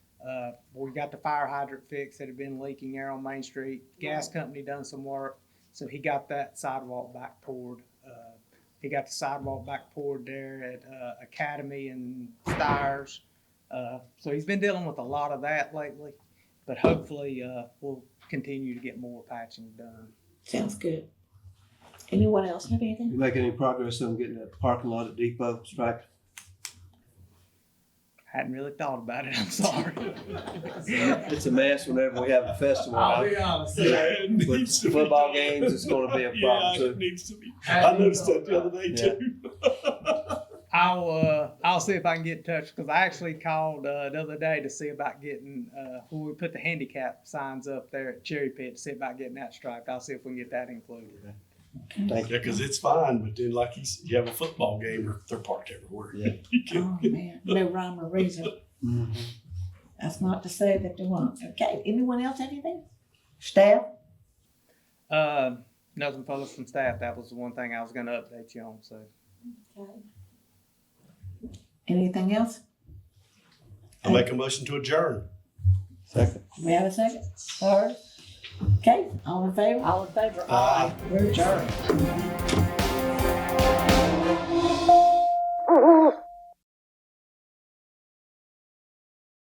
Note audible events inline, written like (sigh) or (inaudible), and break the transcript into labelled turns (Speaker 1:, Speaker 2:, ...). Speaker 1: Uh, we got the fire hydrant fixed that had been leaking air on Main Street. Gas company done some work, so he got that sidewalk back poured. Uh, He got the sidewalk back poured there at uh, Academy and Stires. Uh, So he's been dealing with a lot of that lately, but hopefully uh, we'll continue to get more patching done.
Speaker 2: Sounds good. Anyone else have anything?
Speaker 3: You make any progress on getting that parking lot at Depot striped?
Speaker 1: Hadn't really thought about it, I'm sorry.
Speaker 3: It's a mess whenever we have a festival.
Speaker 4: I'll
Speaker 3: I-
Speaker 4: be honest.
Speaker 5: It
Speaker 3: With
Speaker 5: needs to be
Speaker 3: football
Speaker 5: done.
Speaker 3: games, it's gonna be a problem
Speaker 5: (laughs) Yeah, it
Speaker 3: too.
Speaker 5: needs to be. I noticed that the other day
Speaker 3: Yeah.
Speaker 5: too.
Speaker 1: I'll uh, I'll see if I can get in touch because I actually called uh, the other day to see about getting uh, when we put the handicap signs up there at Cherry Pit to see about getting that striped. I'll see if we can get that included.
Speaker 3: Thank
Speaker 5: Yeah,
Speaker 3: you.
Speaker 5: because it's fine, but then like you said, you have a football game or they're parked everywhere.
Speaker 3: Yeah.
Speaker 5: You can't-
Speaker 2: Oh, man, no rhyme or reason.
Speaker 3: Mhm.
Speaker 2: That's not to say that there won't. Okay, anyone else have anything? Staff?
Speaker 1: Uh, nothing further from staff. That was the one thing I was going to update you on. So
Speaker 2: Okay. Anything else?
Speaker 5: I make a motion to adjourn.
Speaker 3: Second.
Speaker 2: We have a second? Third? Okay, all in favor? All in favor,
Speaker 5: Aye.
Speaker 2: We're adjourned.